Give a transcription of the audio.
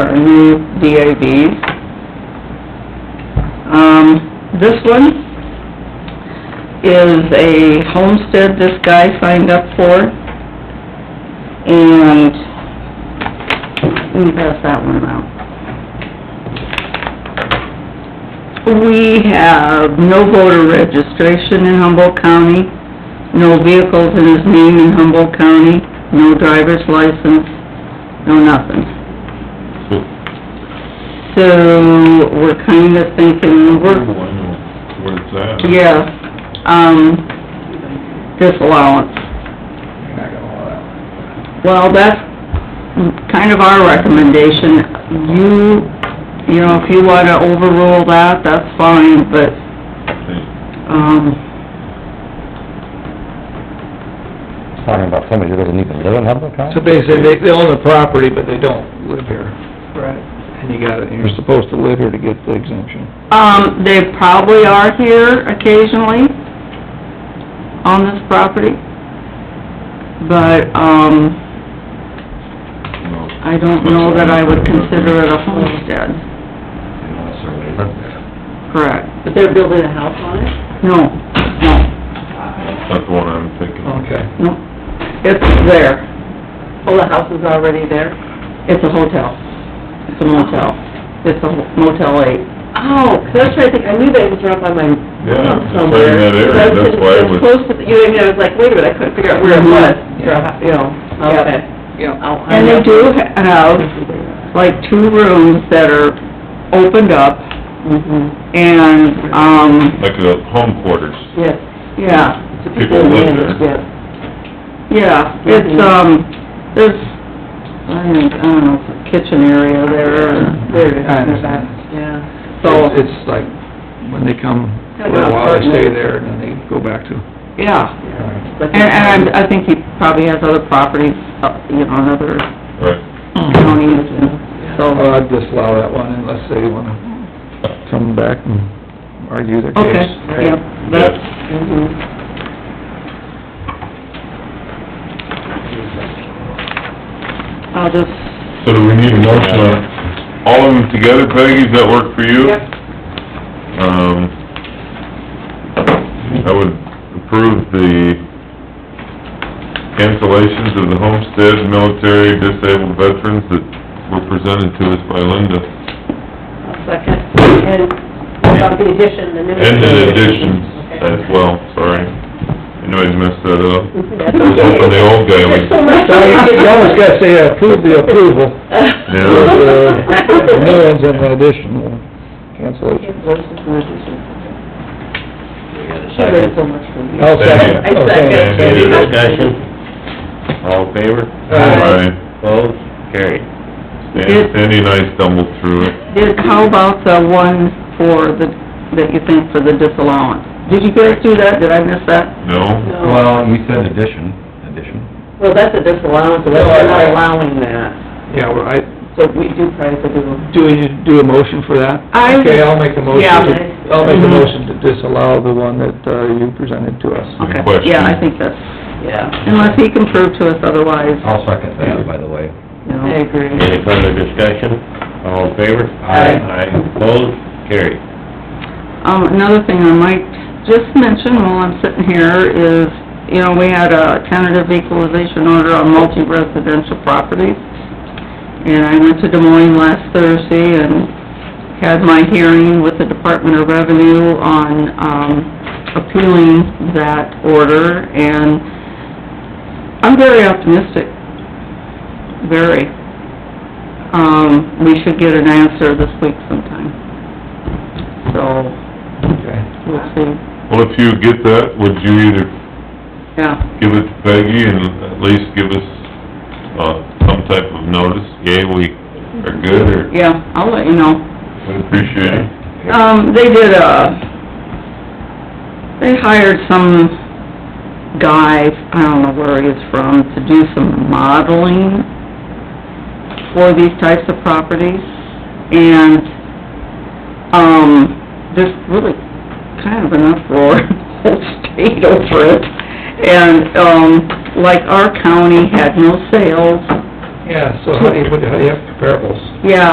our new DAVs. Um, this one is a homestead this guy signed up for, and let me pass that one out. We have no voter registration in Humboldt County, no vehicles in his name in Humboldt County, no driver's license, no nothing. So, we're kinda thinking, I we're, know where it's at. yeah, um, disallowance. Well, that's kind of our recommendation. You, you know, if you wanna overrule that, that's fine, but, um, Talking about somebody who doesn't even live in Humboldt County? So basically, they, they own the property, but they don't live here. Right. And you got it, and you're supposed to live here to get the exemption. um, they probably are here occasionally on this property, but, um, I don't know that I would consider it a homestead. Correct. But they're building a house on it? No, no, That's the one I'm thinking. Okay. no. It's there. Oh, the house is already there? It's a hotel. It's a motel. It's a Motel Eight. Oh, 'cause I was trying to think, I knew that it was around by my Yeah, it's right somewhere. in that area, But I was that's sitting- why I it's was- Close to, the- you know, I mean, I was like, wait a minute, I couldn't figure out where it Mhm. was. Yeah. You know, Yeah. okay. I'll- I'll- And they do have, like, two rooms that are opened up Mhm. and, um, Like the home quarters, Yes. yeah, To People live manage, there. yes. yeah. It's, um, there's, I think, I don't know, it's a kitchen area there, There it I is, there's that, understand. yeah. so, It's it's like, when they come for a while, they stay there, and then they go back to... yeah. yeah. And, and I'm- I think he probably has other properties, uh, you know, in other right? Mm-hmm. counties and so. Well, Uh, I'd disallow that one unless they wanna come back and argue their case. Okay, yep, that's, Mm-hmm. Mhm. I'll just, So do we need a motion on all of them together, Peggy, does that work for you? Yep. Um, I would approve the cancellations of the homestead, military, disabled veterans that were presented to us by Linda. I'll Second, and what about the addition, the new... And the additions as Okay. well, sorry. Anybody's messed that up. That's I was hoping the old guy would... There's so much. So you you almost gotta say approve the approval, but, uh, the new ones and the addition, uh, cancellation. We got a There's so much for me. I'll second. I Oh, thank you. second. Any discussion? All in favor? Aye. Opposed? Carried. Sandy Sandy and I stumbled through it. did, how about the one for the, that you think for the disallowance? Did you guys do that? Did I miss that? No? No. Well, you said addition, addition. Well, that's a disallowance, so that's we're not allowing that, Yeah, well, I, so we do try to do... do we need to do a motion for that? I- Okay, I'll make the motion, Yeah. to- I'll make the Mm-hmm. motion to disallow the one that, uh, you presented to us. Good Okay, question. yeah, I think that's, Yeah, unless he can prove to us otherwise, I'll second that, by the way. you know. I agree. Any further discussion? All in favor? Aye. Aye. Opposed? Carried. Um, another thing I might just mention while I'm sitting here is, you know, we had a tentative equalization order on multi-residential properties. And I went to Des Moines last Thursday and had my hearing with the Department of Revenue on, um, appealing that order. And I'm very optimistic, very. Um, we should get an answer this week sometime. So, Okay. We'll see, Well, if you get that, would you either yeah, give it to Peggy and at least give us, uh, some type of notice? Yay, we are good, or yeah, I'll let you know. we appreciate it? Um, they did a, they hired some guy, I don't know where he is from, to do some modeling for these types of properties, and, um, there's really kind of an uproar in the whole state over it. And, um, like our county had no sales, Yeah, so how do you, how do you have comparables? yeah,